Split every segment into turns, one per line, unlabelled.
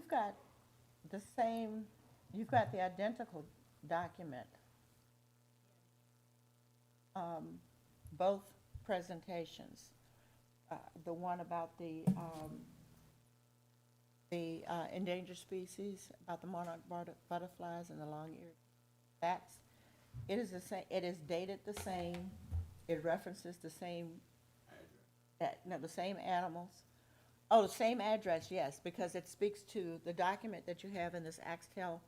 got the same, you've got the identical document. Um, Both presentations. Uh, The one about the, um, the uh, endangered species, about the monarch bud- butterflies and the long-eared bats. It is the same, it is dated the same, it references the same, that, no, the same animals. Oh, the same address, yes, because it speaks to the document that you have in this Axtel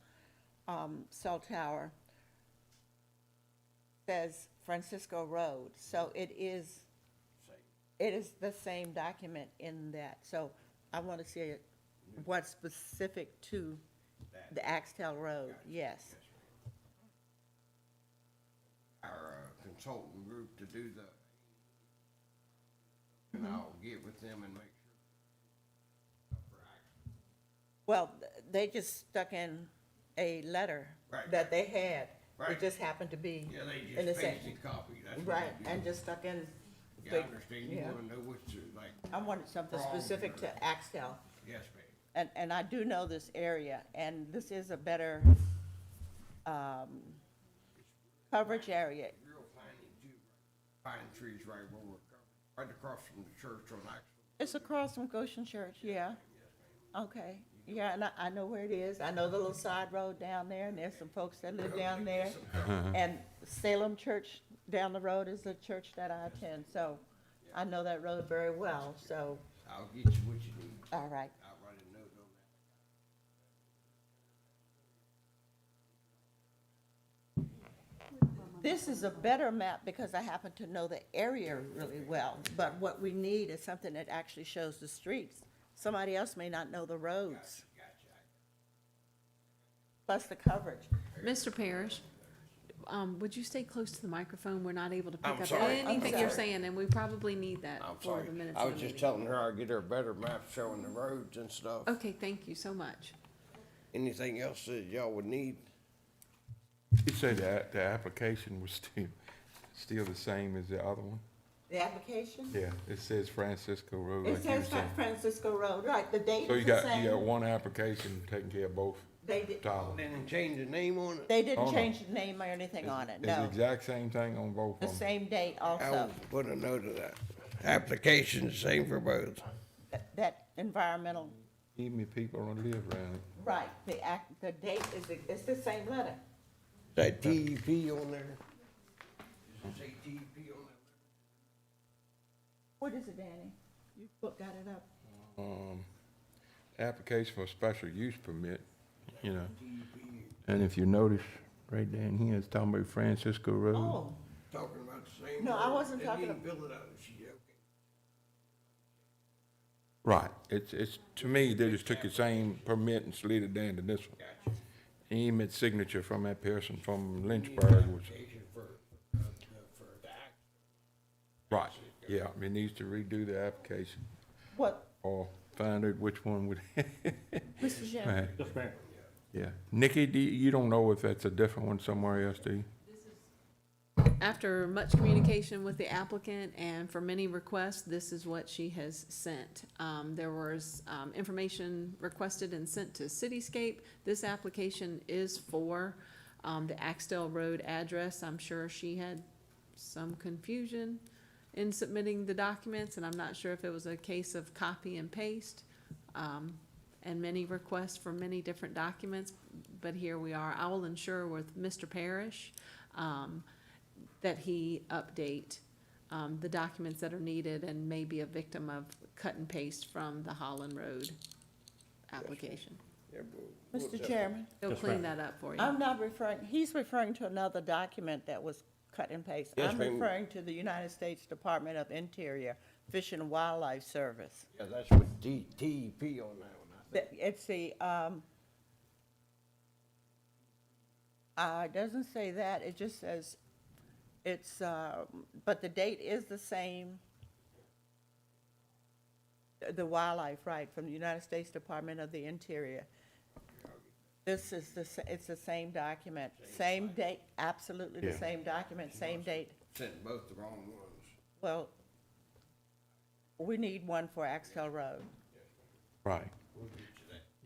um, cell tower. Says Francisco Road, so it is, it is the same document in that. So I want to see it, what's specific to the Axtel Road, yes.
our uh, consultant group to do the, and I'll get with them and make sure.
Well, th- they just stuck in a letter
Right.
that they had. It
Right.
just happened to be
Yeah, they
in the
just
same.
pasted copy, that's what
Right,
they do.
and just stuck in.
Yeah, I
the-
understand, you
yeah.
wanna know what to, like,
I wanted something
Wrong.
specific to Axtell,
yes, ma'am,
and, and I do know this area, and this is a better, um, coverage area.
real pine and ju- pine trees right where we're covered, right across from the church on Axel.
It's across from Goshen Church, yeah. Okay, yeah, and I, I know where it is. I know the little side road down there, and there's some folks that live down there. And Salem Church down the road is the church that I attend, so I know that road very well, so,
I'll get you what you need,
all right.
I'll write a note on that.
This is a better map because I happen to know the area really well, but what we need is something that actually shows the streets. Somebody else may not know the roads. Plus the coverage.
Mr. Parrish, um, would you stay close to the microphone? We're not able to
I'm
pick up
sorry. I'm
anything you're
sorry.
saying, and we probably need that
I'm
for
sorry,
the minutes
I
of
was
the
just
meeting.
telling her I'll get her a better map showing the roads and stuff.
Okay, thank you so much.
Anything else that y'all would need?
You said that the application was still, still the same as the other one?
The application?
Yeah, it says Francisco Road.
It
like you were
says San
saying.
Francisco Road, right, the date
So you
is the
got, you got
same.
one application taking care of both
They did,
towers.
Didn't change the name on it?
they
Oh,
didn't
no.
change the name or anything on it,
It's the
no.
exact same thing on both
The
of them.
same date
I'll
also,
put a note of that. Application the same for both.
that- that environmental,
Even if people don't live around it.
right, the act, the date is, the- it's the same letter.
That TEP on there? Does it say TEP E on
What is it, Danny? You book- got it up.
Um, application for special use permit, you know.
E
And if you notice, right down here, it's talking about Francisco Road.
Oh,
there? Talking about the same.
No, I
road.
wasn't
They
talking
didn't fill it out, she joking.
Right, it's, it's, to me, they just took the same permit and slid it down to this one.
Gotcha.
Emmett signature from that person from Lynchburg was,
Application for, uh, for the act.
right, yeah, it needs to redo the application
what,
or find out which one would.
Mr. Chairman?
Yeah, Nikki, do, you you don't know if that's a different one somewhere else, do you?
After much communication with the applicant and for many requests, this is what she has sent. Um, there was, um, information requested and sent to Cityscape. This application is for, um, the Axtell Road address. I'm sure she had some confusion in submitting the documents, and I'm not sure if it was a case of copy and paste. Um, and many requests for many different documents, but here we are. I will ensure with Mr. Parrish, um, that he update um, the documents that are needed and may be a victim of cut and paste from the Holland Road application.
Yeah, but what's
Mr.
that?
Chairman,
He'll clean that up for you.
I'm not referring, he's referring to another document that was cut and paste.
Yes,
I'm
ma'am.
referring to the United States Department of Interior Fish and Wildlife Service.
Yeah, that's with D- TEP on that one, I think.
The- It's the, um, uh, it doesn't say that, it just says, it's, uh, but the date is the same. uh, The wildlife, right, from the United States Department of the Interior. This is the, s- it's the same document, same date, absolutely the
Yeah.
same document, same date.
Sent both the wrong ones.
Well, we need one for Axtell Road.
Right.